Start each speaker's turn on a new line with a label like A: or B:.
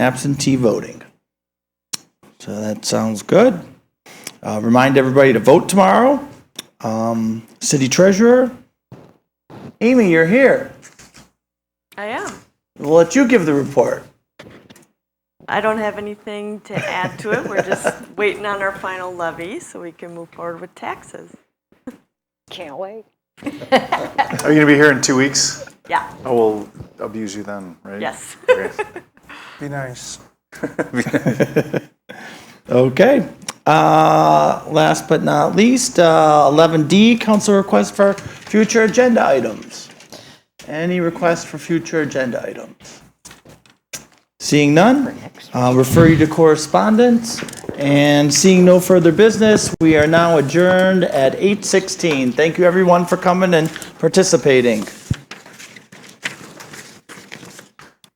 A: absentee voting. So that sounds good. Uh, Remind everybody to vote tomorrow. Um, City Treasurer, Amy, you're here.
B: I am.
A: We'll let you give the report.
B: I don't have anything to add to it. We're just waiting on our final levy so we can move forward with taxes.
C: Can't wait.
D: Are you gonna be here in two weeks?
B: Yeah,
D: I will abuse you then, right?
B: yes.
D: Okay.
E: Be nice.
A: Okay. Uh, Last but not least, uh, 11D, council request for future agenda items. Any requests for future agenda items? Seeing none, uh, refer you to correspondence. And seeing no further business, we are now adjourned at 8:16. Thank you, everyone, for coming and participating.